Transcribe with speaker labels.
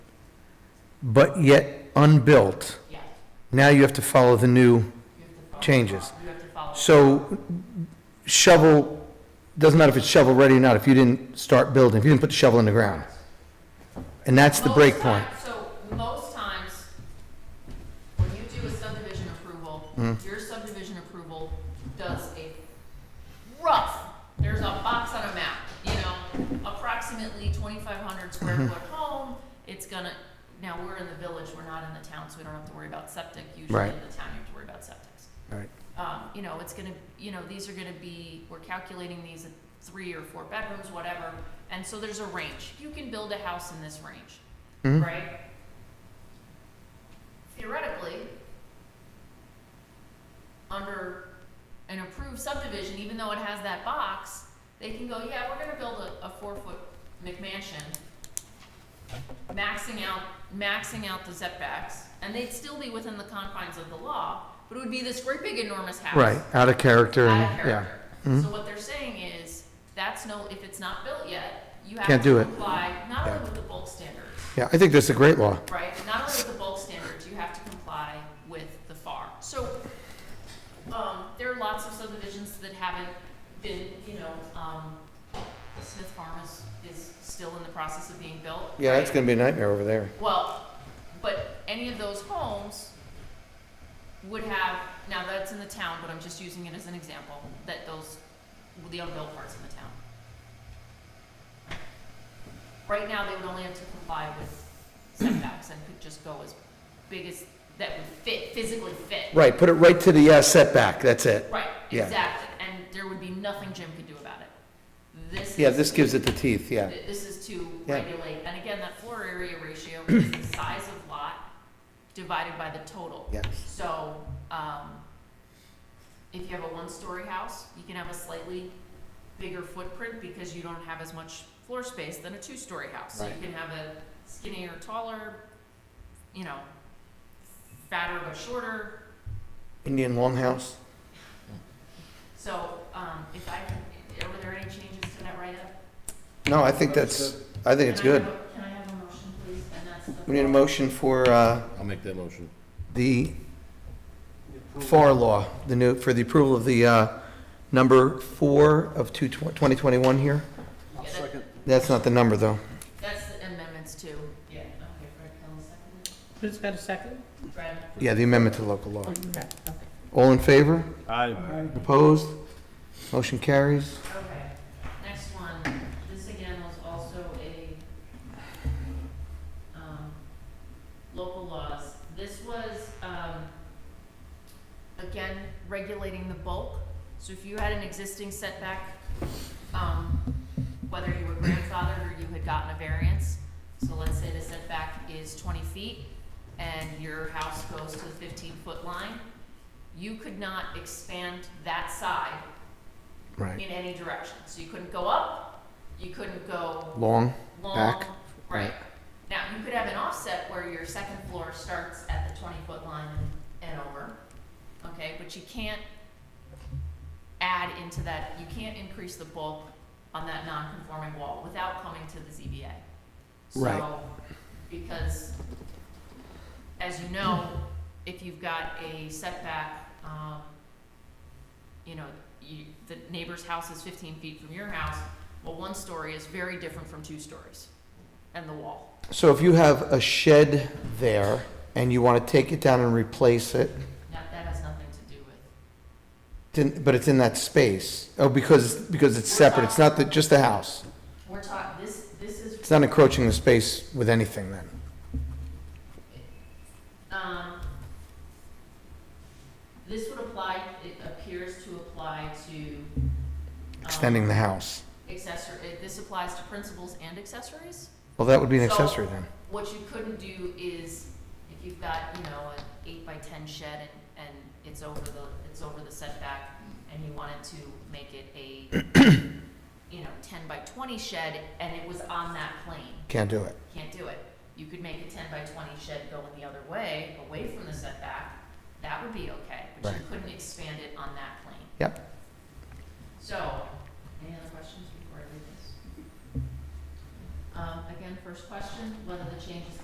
Speaker 1: but yet unbuilt.
Speaker 2: Yeah,
Speaker 1: Now you have to follow the new
Speaker 2: you have to follow.
Speaker 1: changes.
Speaker 2: You have to follow.
Speaker 1: So shovel, doesn't matter if it's shovel ready or not, if you didn't start building, if you didn't put the shovel in the ground. And that's the
Speaker 2: Most
Speaker 1: break point.
Speaker 2: times- So most times, when you do a subdivision approval,
Speaker 1: Mm-hmm.
Speaker 2: your subdivision approval does a rough, there's a box on a map, you know, approximately twenty-five hundred square
Speaker 1: Mm-hmm.
Speaker 2: foot home, it's gonna, now, we're in the village, we're not in the town, so we don't have to worry about septic, usually
Speaker 1: Right.
Speaker 2: in the town, you have to worry about septics.
Speaker 1: Right.
Speaker 2: Um, you know, it's gonna, you know, these are gonna be, we're calculating these at three or four bedrooms, whatever, and so there's a range, you can build a house in this range
Speaker 1: Mhm.
Speaker 2: right? Theoretically, under an approved subdivision, even though it has that box, they can go, yeah, we're gonna build a, a four-foot McMansion, maxing out, maxing out the setbacks, and they'd still be within the confines of the law, but it would be this great big enormous house.
Speaker 1: Right, out of character
Speaker 2: Out of
Speaker 1: and, yeah.
Speaker 2: character.
Speaker 1: Mhm.
Speaker 2: So what they're saying is, that's no, if it's not built yet, you have
Speaker 1: Can't do
Speaker 2: to
Speaker 1: it.
Speaker 2: comply, not only
Speaker 1: Yeah.
Speaker 2: with the bulk standards,
Speaker 1: Yeah, I think that's a great law.
Speaker 2: Right, not only with the bulk standards, you have to comply with the FAR. So, um, there are lots of subdivisions that haven't been, you know, um, Smith Farm is, is still in the process of being built.
Speaker 1: Yeah, that's
Speaker 2: right?
Speaker 1: gonna be a nightmare over there.
Speaker 2: Well, but any of those homes would have, now that's in the town, but I'm just using it as an example, that those, the unbuilt parts in the town. Right now, they would only have to comply with setbacks and could just go as big as, that would fit, physically fit.
Speaker 1: Right, put it right to the uh, setback, that's it.
Speaker 2: Right,
Speaker 1: Yeah.
Speaker 2: exactly, and there would be nothing Jim could do about it. This is.
Speaker 1: Yeah, this gives it the teeth, yeah.
Speaker 2: Th- This is to
Speaker 1: Yeah.
Speaker 2: regulate, and again, that floor area ratio is the size of lot divided by the total.
Speaker 1: Yes.
Speaker 2: So, um, if you have a one-story house, you can have a slightly bigger footprint because you don't have as much floor space than a two-story house. So you
Speaker 1: Right.
Speaker 2: can have a skinnier, taller, you know, fatter but shorter,
Speaker 1: Indian longhouse?
Speaker 2: so, um, if I, can- were there any changes to that write-up?
Speaker 1: No, I think that's, I think it's
Speaker 2: Can I
Speaker 1: good.
Speaker 2: have a- Can I have a motion, please, and that's the.
Speaker 1: We need a
Speaker 2: floor.
Speaker 1: motion for, uh,
Speaker 3: I'll make that motion.
Speaker 1: the FAR law, the new, for the approval of the uh, number four of two- 2021 here?
Speaker 2: Yeah, that-
Speaker 1: That's not the number, though.
Speaker 2: That's the amendments too. Yeah. Okay, Fred Kelly seconded.
Speaker 4: Who's got a second?
Speaker 2: Fred?
Speaker 1: Yeah, the amendment to local law.
Speaker 4: Oh, you got it. Okay.
Speaker 1: All in favor?
Speaker 3: Aye.
Speaker 1: Opposed? Motion carries.
Speaker 2: Okay. Next one, this again was also a, um, local laws. This was, um, again, regulating the bulk. So if you had an existing setback, um, whether you were grandfathered or you had gotten a variance, so let's say the setback is twenty feet and your house goes to the fifteen-foot line, you could not expand that side
Speaker 1: Right.
Speaker 2: in any direction. So you couldn't go up, you couldn't go
Speaker 1: Long?
Speaker 2: long,
Speaker 1: Back,
Speaker 2: right?
Speaker 1: right.
Speaker 2: Now, you could have an offset where your second floor starts at the twenty-foot line and over, okay? But you can't add into that, you can't increase the bulk on that non-conforming wall without coming to the ZBA.
Speaker 1: Right.
Speaker 2: So, because, as you know, if you've got a setback, um, you know, you, the neighbor's house is fifteen feet from your house, well, one story is very different from two stories and the wall.
Speaker 1: So if you have a shed there and you want to take it down and replace it,
Speaker 2: That, that has nothing to do with.
Speaker 1: didn't- but it's in that space, oh, because, because it's separate, it's not the- just the house.
Speaker 2: We're talking, this, this is,
Speaker 1: It's not encroaching the space with anything then.
Speaker 2: um, this would apply, it appears to apply to. um,
Speaker 1: Extending the house.
Speaker 2: Accessory, it- this applies to principals and accessories?
Speaker 1: Well, that would be an
Speaker 2: So-
Speaker 1: accessory then.
Speaker 2: What you couldn't do is, if you've got, you know, an eight by ten shed and, and it's over the, it's over the setback, and you wanted to make it a, you know, ten by twenty shed, and it was on that plane,
Speaker 1: Can't do it.
Speaker 2: can't do it. You could make a ten by twenty shed go in the other way, away from the setback, that would be okay, but you
Speaker 1: Right.
Speaker 2: couldn't expand it on that plane.
Speaker 1: Yep.
Speaker 2: So, any other questions before I read this? Um, again, first question, whether the change is